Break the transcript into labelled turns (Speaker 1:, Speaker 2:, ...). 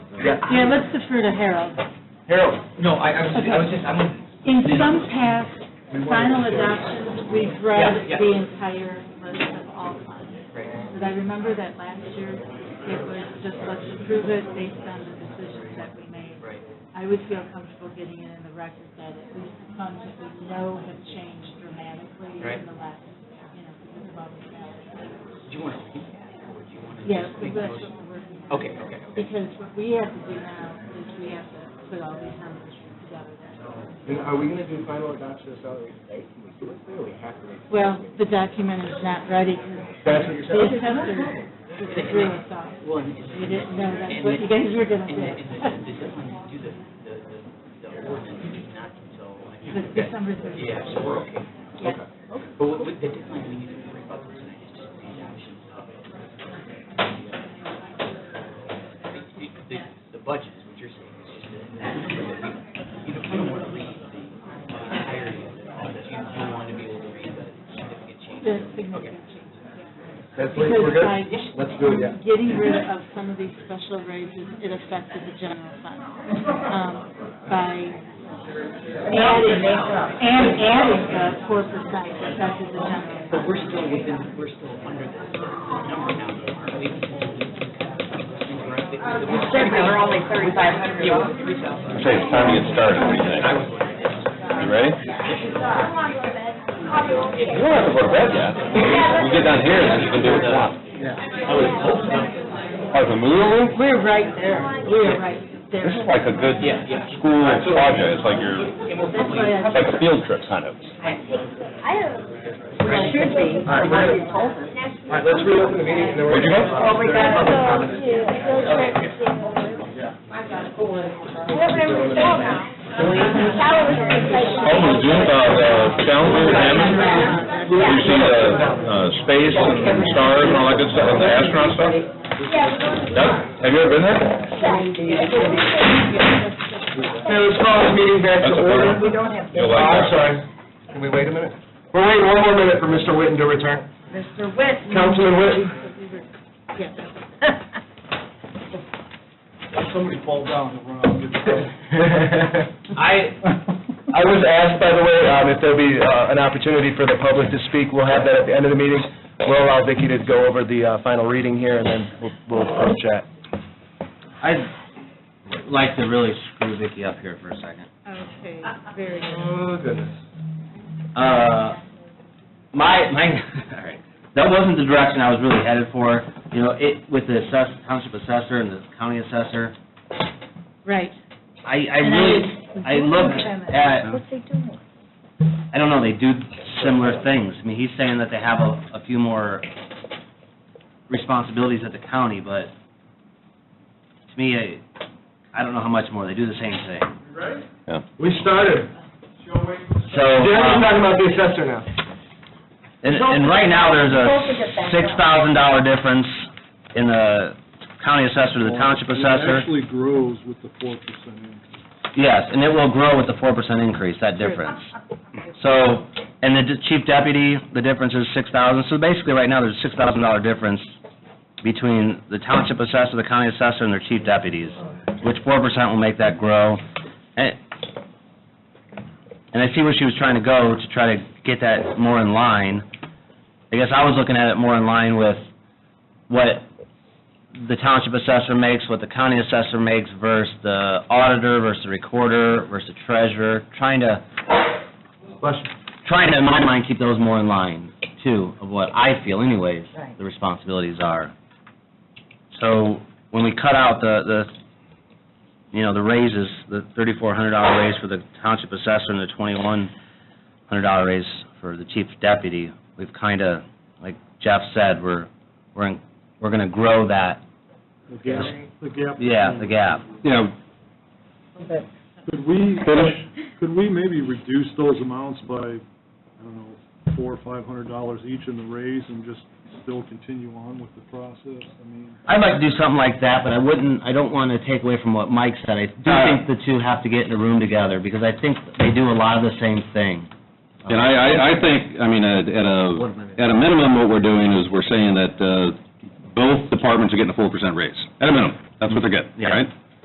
Speaker 1: Yeah, let's defer to Harold.
Speaker 2: Harold,
Speaker 3: No, I, I was, I was just, I'm,
Speaker 1: In some past final adoptions, we've read
Speaker 3: Yeah, yeah.
Speaker 1: the entire list of all funds. But I remember that last year, it was just let's approve it based on the decisions that we made.
Speaker 3: right,
Speaker 1: I would feel comfortable getting it in the record that at least the funds that we know have changed dramatically in
Speaker 3: Right.
Speaker 1: the last, you know, because of all the balance.
Speaker 3: do you want to read that, or do you want to
Speaker 1: Yes,
Speaker 3: just
Speaker 1: but
Speaker 3: make the
Speaker 1: that's
Speaker 3: motion?
Speaker 1: what we're working on.
Speaker 3: Okay, okay, okay.
Speaker 1: Because what we have to do now is we have to put all these numbers together.
Speaker 2: and are we gonna do final adoption of salary today? Can we do it today, or we have to wait? till
Speaker 1: Well,
Speaker 2: next week?
Speaker 1: the document is not ready because
Speaker 2: That's what you're
Speaker 1: the
Speaker 2: saying?
Speaker 1: assessor withdrew us all.
Speaker 3: Well, and it's.
Speaker 1: We didn't know that's
Speaker 3: and
Speaker 1: what
Speaker 3: the-
Speaker 1: you guys were gonna
Speaker 3: And the, and the,
Speaker 1: do.
Speaker 3: the deadline to do the, the, the- the ordinance is not until, I think.
Speaker 1: It's December thirty.
Speaker 3: Yeah, so we're okay.
Speaker 1: Yeah.
Speaker 3: But with, with the deadline, we need to worry about this tonight, it's just these options of. The, the- the budget is what you're saying, it's just that, you know, you don't want to read the entirety of it, but you do want to be able to read the
Speaker 1: The
Speaker 3: significant changes.
Speaker 1: significant changes.
Speaker 2: That's late,
Speaker 1: Because
Speaker 2: we're good?
Speaker 1: by
Speaker 2: Let's do it, yeah.
Speaker 1: getting rid of some of these special raises, it affected the general fund. Um, By adding, and adding the four percent affected the general
Speaker 3: But
Speaker 1: fund.
Speaker 3: we're still within, we're still under the the number now, aren't we?
Speaker 4: Certainly, we're only thirty-five hundred
Speaker 3: Yeah,
Speaker 4: off.
Speaker 3: we're three thousand.
Speaker 5: Okay, it's time to get started, what do you think? You ready? You don't have to go to bed yet. We get down here, and you can do what you want. Oh, the movie room?
Speaker 1: We're right there, we're right
Speaker 5: This
Speaker 1: there.
Speaker 5: is like a good
Speaker 3: Yeah, yeah.
Speaker 5: school project, it's like your,
Speaker 3: And we'll
Speaker 1: That's
Speaker 3: probably,
Speaker 1: why I
Speaker 5: it's like a field trip kind of.
Speaker 4: Well, it should be,
Speaker 2: All right,
Speaker 4: why
Speaker 2: we're
Speaker 4: you
Speaker 2: good.
Speaker 4: told us.
Speaker 2: All right, let's reopen the meeting, and then we're.
Speaker 5: Where'd you go?
Speaker 4: Well, we got to go to,
Speaker 5: Oh, the Zoom, uh, the calendar, Hammond? You see the, uh, space and stars and all that good stuff, and the astronaut stuff? Yeah. Have you ever been there?
Speaker 2: Okay, let's call this meeting back
Speaker 5: That's
Speaker 2: to
Speaker 5: a
Speaker 2: order.
Speaker 5: good one. You'll
Speaker 2: Oh,
Speaker 5: like that.
Speaker 2: I'm sorry. Can we wait a minute? We're waiting one more minute for Mr. Witten to return.
Speaker 4: Mr. Whitman.
Speaker 2: Councilman Witten?
Speaker 1: Yes.
Speaker 6: Somebody fall down and run out and get the
Speaker 2: I, I was asked, by the way, um, if there'll be uh, an opportunity for the public to speak. We'll have that at the end of the meeting. We'll allow Vicki to go over the uh, final reading here, and then we'll- we'll we'll chat.
Speaker 7: I'd like to really screw Vicky up here for a second.
Speaker 1: Okay, very good.
Speaker 2: Oh, goodness.
Speaker 7: Uh, my, my, all right, that wasn't the direction I was really headed for. You know, it, with the assess, township assessor and the county assessor,
Speaker 1: Right.
Speaker 7: I, I really, I looked at,
Speaker 4: What's he doing?
Speaker 7: I don't know, they do similar things. I mean, he's saying that they have a, a few more responsibilities at the county, but to me, I, I don't know how much more. They do the same thing.
Speaker 2: We started.
Speaker 7: So.
Speaker 2: Jeremy's
Speaker 7: um,
Speaker 2: talking about the assessor now.
Speaker 7: And, and right now, there's
Speaker 4: Don't forget
Speaker 7: a
Speaker 4: that.
Speaker 7: six thousand dollar difference in the county assessor to the township assessor.
Speaker 6: It actually grows with the four percent increase.
Speaker 7: Yes, and it will grow with the four percent increase, that difference. So, and the d- chief deputy, the difference is six thousand, so basically, right now, there's a six thousand dollar difference between the township assessor, the county assessor, and their chief deputies, which four percent will make that grow. And, and I see where she was trying to go to try to get that more in line. I guess I was looking at it more in line with what the township assessor makes, what the county assessor makes versus the auditor, versus the recorder, versus the treasurer, trying to, trying to, in my mind, keep those more in line, too, of what I feel anyways,
Speaker 4: Right.
Speaker 7: the responsibilities are. So, when we cut out the, the, you know, the raises, the thirty-four hundred dollar raise for the township assessor and the twenty-one hundred dollar raise for the chief deputy, we've kinda, like Jeff said, we're, we're, in- we're gonna grow that
Speaker 6: The gap, the gap.
Speaker 7: yeah, the gap.
Speaker 5: Yeah,
Speaker 6: Could we,
Speaker 5: finish.
Speaker 6: could we maybe reduce those amounts by, I don't know, four or five hundred dollars each in the raise and just still continue on with the process? I mean,
Speaker 7: I'd like to do something like that, but I wouldn't, I don't want to take away from what Mike said. I do
Speaker 5: Uh,
Speaker 7: think the two have to get in a room together, because I think they do a lot of the same thing.
Speaker 5: And I, I, I think, I mean, at at a, at a minimum, what we're doing is we're saying that, uh, both departments are getting a four percent raise, at a minimum, that's what they're getting,
Speaker 7: Yeah.
Speaker 5: right?